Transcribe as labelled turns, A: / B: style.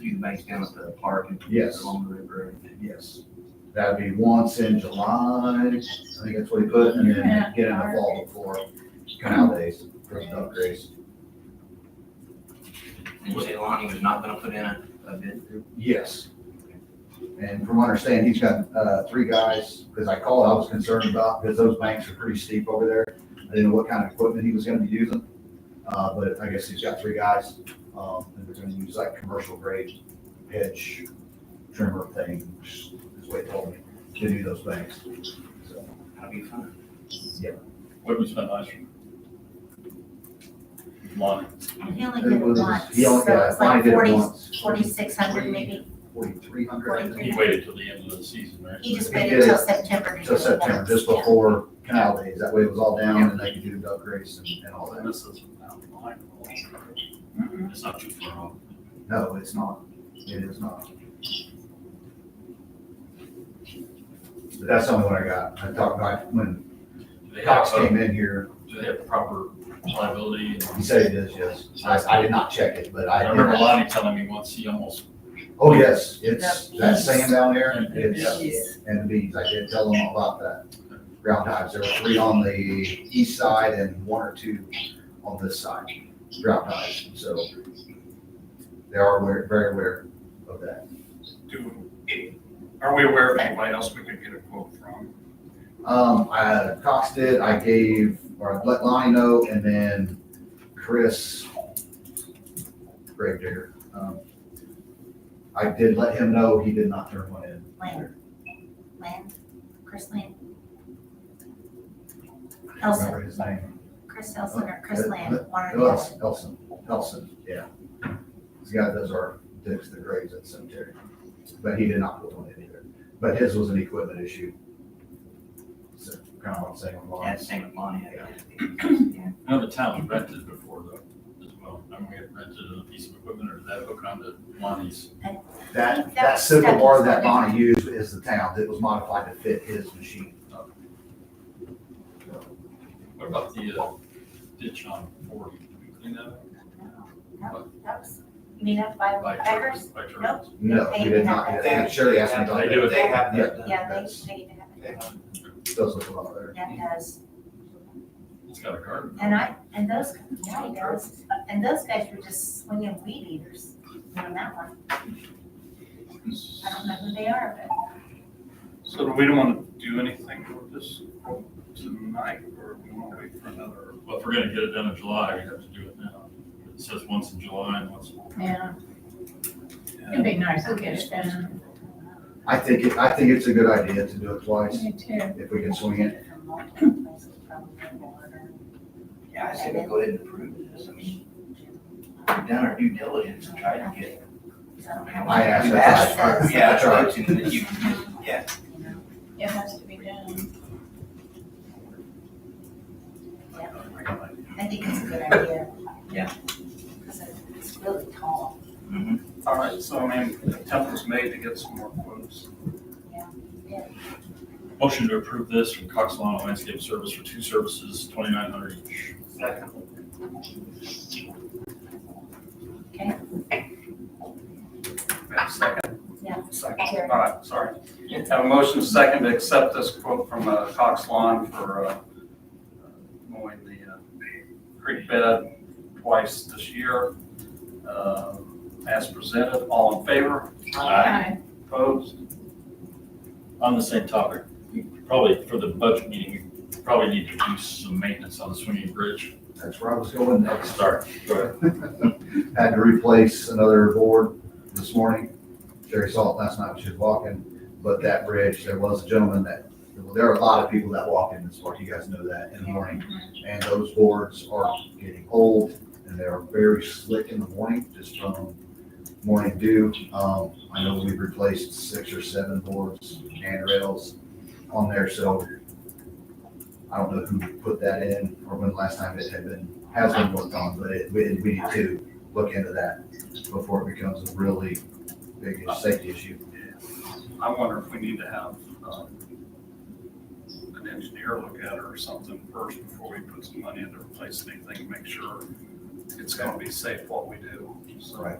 A: do the banks down at the park and
B: Yes.
A: along the river.
B: Yes, that'd be once in July, I think that's what he put, and then get in the fall before canal days, first duck days.
A: And you say Lonnie was not gonna put in a, a bid?
B: Yes. And from what I understand, he's got, uh, three guys, because I called, I was concerned about, because those banks are pretty steep over there. I didn't know what kind of equipment he was gonna be using, uh, but I guess he's got three guys, um, and they're gonna use like commercial grade hedge trimmer thing, is what he told me, to do those banks. So,
A: That'll be fun.
B: yeah.
C: What did we spend last year? Money.
D: He only
B: It
D: did
B: was,
D: it once,
B: he
D: so
B: only
D: it
B: got,
D: was like
B: mine did it
D: forty,
B: once.
D: forty-six hundred maybe.
B: Forty-three hundred.
C: He waited till the end of the season, right?
D: He just
B: He
D: waited
B: did
D: till
B: it
D: September. to
B: So
D: do it
B: September,
D: once.
B: just
D: Yeah.
B: before canal days, that way it was all down and they could do duck race and, and all that.
C: This is down the line.
D: Mhm.
C: It's not too far off.
B: No, it's not, it is not. But that's the only one I got, I talked about when
C: Do they have,
B: Cox
C: uh,
B: came in here,
C: do they have proper liability?
B: he said it is, yes, I, I did not check it, but
C: I
B: I.
C: remember Lonnie telling me once he almost,
B: Oh, yes, it's, that sand down there,
C: Yeah.
B: it's, and beans, I did tell them about that. Ground hives, there were three on the east side and one or two on this side, ground hives, so they are aware- very aware of that.
E: Do, are we aware of anybody else we could get a quote from?
B: Um, I, Cox did, I gave, or I let Lonnie know, and then Chris Greg Digger. um, I did let him know, he did not turn one in.
D: Land. Land, Chris Land.
B: I don't Remember
D: Elson,
B: his name?
D: Chris Elson or Chris
B: Uh,
D: Land, one or the other.
B: Elson, Elson, Elson, yeah. He's got, those are, digs the graves at cemetery, but he did not put one in either. But his was an equipment issue. So kind of what I'm saying with
A: Yeah,
B: Lonnie's.
A: same with Lonnie. I guess. Yeah.
C: I know the town we rented before though, as well. I mean, we had rented a piece of equipment or that hook onto Lonnie's.
B: That,
D: That
B: that
D: was
B: simple
D: stuck
B: bar
D: in
B: that
D: something.
B: Bonnie used is the town, that was modified to fit his machine.
C: What about the uh, ditch on forty? Did we clean that up?
D: No, that was, you mean up by
C: By
D: Beggars?
C: Turner's? By Turner's?
D: Nope.
B: No, we did not, do that. Shirley asked me about
C: They do
B: that.
C: it.
A: They have that done.
D: Yeah, they,
B: That's-
D: they even have it.
B: Does look a lot better.
D: That does.
C: It's got a garden.
D: And I, and those, yeah, he does. And those guys were just swinging weed eaters on that one. I don't know who they are, but.
E: So do we don't want to do anything with this quote tonight, or we want to wait for another?
C: Well, if we're gonna get it done in July, we have to do it now. It says once in July and once.
F: Yeah, it'd be nice to get it done.
B: I think, it- I think it's a good idea to do it twice,
F: Me too.
B: if we can swing it.
A: Yeah, I say we go ahead and approve this. I mean,
D: um,
A: we've done our due diligence and tried to get.
B: I asked
A: We've
B: that.
A: asked for- Yeah, I tried to, but you, yeah.
F: It has to be done.
D: I think it's a good idea.
A: Yeah.
D: Because it's really tall.
A: Mhm.
E: All right, so I mean, the attempt was made to get some more quotes.
C: Motion to approve this from Cox Lawn Landscape Service for two services, twenty-nine hundred each.
E: We have a second?
D: Yeah.
E: Second, all right, sorry. Have a motion and a second to accept this quote from uh, Cox Lawn for uh, mowing the uh, creek bed twice this year. uh, As presented, all in favor,
F: Aye.
E: opposed?
C: On the same topic, we probably for the budget meeting, we probably need to do some maintenance on the swinging bridge.
B: That's where I was going next.
C: Start. Go ahead.
B: Had to replace another board this morning. Jerry saw it last night when she was walking, but that bridge, there was a gentleman that, there are a lot of people that walk in this morning, you guys know that, in the morning. And those boards are getting old and they're very slick in the morning, just from morning dew. Um, I know we've replaced six or seven boards and rails on there, so I don't know who put that in or when the last time it had been, has been worked on, but it, we, we need to look into that before it becomes a really big safety issue.
E: I wonder if we need to have um, an engineer look at it or something first before we put some money in to replace anything, make sure it's gonna be safe what we do. So
B: Right.